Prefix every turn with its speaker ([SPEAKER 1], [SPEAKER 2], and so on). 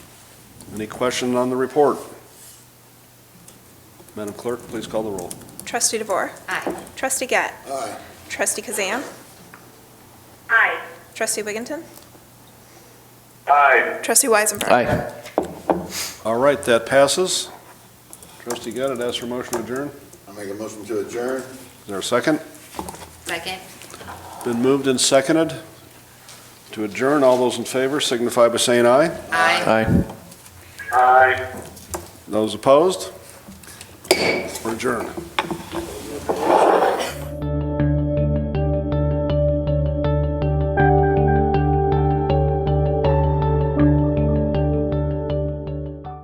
[SPEAKER 1] Any question on the report? Madam Clerk, please call the roll.
[SPEAKER 2] Trustee DeVore.
[SPEAKER 3] Aye.
[SPEAKER 2] Trustee Gatt.
[SPEAKER 4] Aye.
[SPEAKER 2] Trustee Kazan.
[SPEAKER 3] Aye.
[SPEAKER 2] Trustee Wigginton.
[SPEAKER 5] Aye.
[SPEAKER 2] Trustee Weisenberg.
[SPEAKER 6] Aye.
[SPEAKER 1] All right, that passes. Trustee Gaddard, ask for motion to adjourn.
[SPEAKER 4] I make a motion to adjourn.
[SPEAKER 1] Is there a second?
[SPEAKER 3] Second.
[SPEAKER 1] Been moved and seconded to adjourn. All those in favor signify by saying aye.
[SPEAKER 3] Aye.
[SPEAKER 6] Aye.
[SPEAKER 5] Aye.
[SPEAKER 1] Those opposed? We're adjourned.